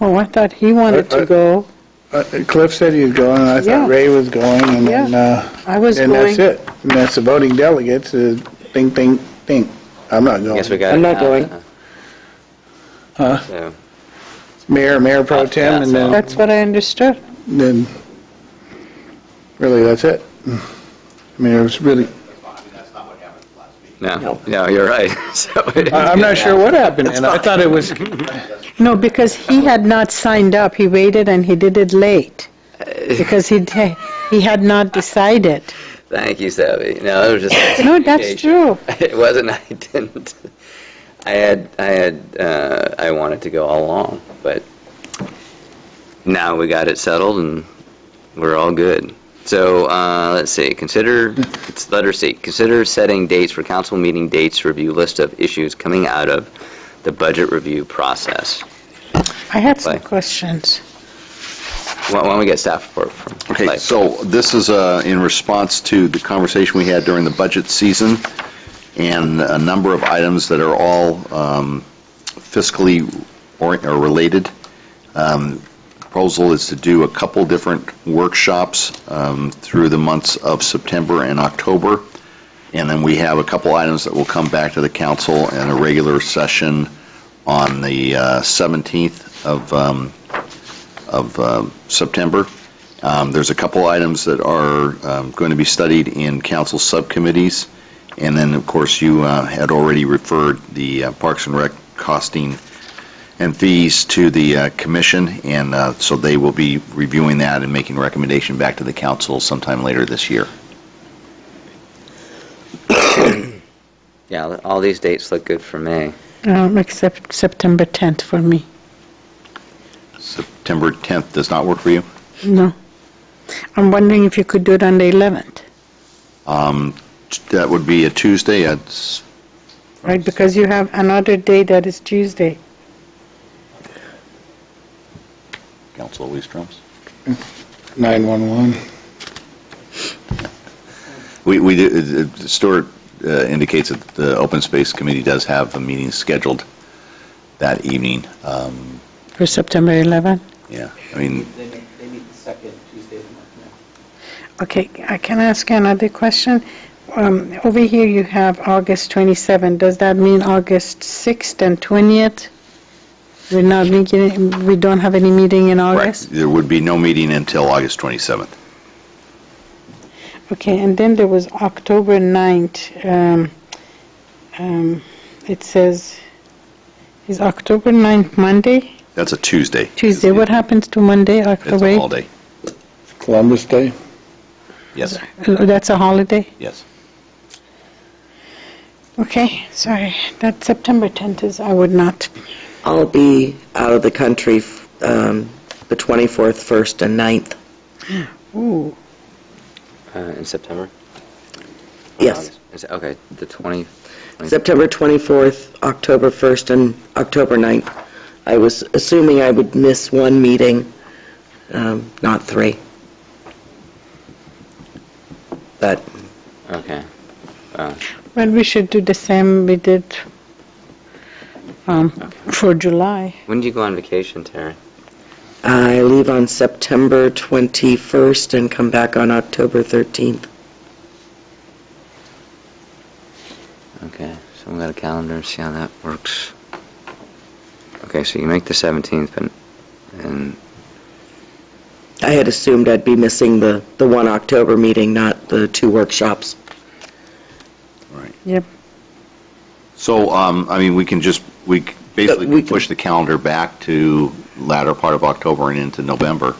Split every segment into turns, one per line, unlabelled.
Oh, I thought he wanted
Uh,
to
uh,
go.
Uh, Cliff said he was going, and I
Yeah.
thought Ray was going, and then,
Yeah.
uh,
I was
and that's
going.
it. And that's the voting delegates, uh, is ding, ding, ding. I'm not going.
Guess we got it.
I'm not
now,
going.
huh?
Huh?
So,
Mayor, Mayor Pro
That's-
Tem,
that's
and then,
That's what I understood.
then, really, that's it. I mean, it was really,
no, no, you're right. So it-
I- I'm not sure what happened, and I thought it was,
No, because he had not signed up. He waited and he did it late because he he had not decided.
Thank you, Savvy. No, it was just.
No, that's true.
It wasn't, I didn't, I had, I had, uh, I wanted to go all along, but now we got it settled and we're all good. So, uh, let's see, consider, it's letter C, consider setting dates for council meeting dates, to review list of issues coming out of the budget review process.
I had some
Right.
questions.
Why why don't we get staff report from
Okay,
Clay?
so this is uh, in response to the conversation we had during the budget season and a number of items that are all um, fiscally or or related. Um, Proposal is to do a couple different workshops um, through the months of September and October, and then we have a couple items that will come back to the council in a regular session on the uh, 17th of um, of um, September. Um, There's a couple items that are um, going to be studied in council subcommittees, and then, of course, you uh, had already referred the uh, Parks and Rec costing and fees to the uh, commission, and uh, so they will be reviewing that and making recommendation back to the council sometime later this year.
Yeah, all these dates look good for me.
Um, except September 10th for me.
September 10th does not work for you?
No. I'm wondering if you could do it on the 11th,
Um, That would be a Tuesday, it's
right? Because you have another day that is Tuesday.
Council Leistroms.
911.
We, we, do- uh, Stuart uh, indicates that the Open Space Committee does have a meeting scheduled that evening. Um,
For September 11th?
Yeah, I mean,
They meet, they meet the second Tuesday of the month now.
Okay, I can ask you another question. Um, Over here, you have August 27. Does that mean August 6th and 20th? We're not making, we don't have any meeting in
correct,
August?
there would be no meeting until August 27th.
Okay, and then there was October 9th. Um, um, It says, is October 9th Monday?
That's a Tuesday.
Tuesday, what happens to Monday,
It's
October
a
8th?
holiday.
Columbus Day?
Yes,
Uh, That's a holiday?
yes.
Okay, sorry, that September 10th is, I would not.
I'll be out of the country um, the 24th, 1st, and 9th.
Ooh,
Uh, in September?
Yes.
Is- Okay, the 20,
September 24th, October 1st, and October 9th. I was assuming I would miss one meeting, um, not three. But
okay. Uh,
well, we should do the same we did um, for July.
When do you go on vacation, Terry?
I leave on September 21st and come back on October 13th.
Okay, so we got a calendar, see how that works. Okay, so you make the 17th, but, and,
I had assumed I'd be missing the, the one October meeting, not the two workshops.
Yep.
So, um, I mean, we can just, we c- basically
Uh, we
can push the calendar back to latter part of October and into November.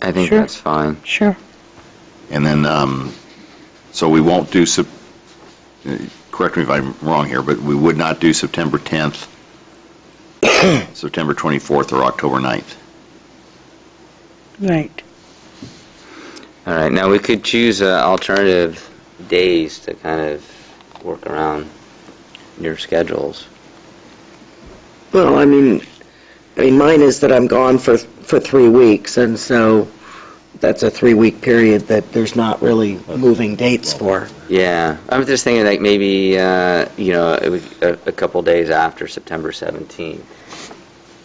I think
Sure.
that's fine.
Sure.
And then, um, so we won't do, Sep- uh, correct me if I'm wrong here, but we would not do September 10th, September 24th, or October 9th.
Right.
All right, now we could choose uh, alternative days to kind of work around your schedules.
Well, I mean, I mean, mine is that I'm gone for, for three weeks, and so that's a three-week period that there's not really moving dates for.
Yeah, I'm just thinking like maybe, uh, you know, it was a, a couple days after September 17th.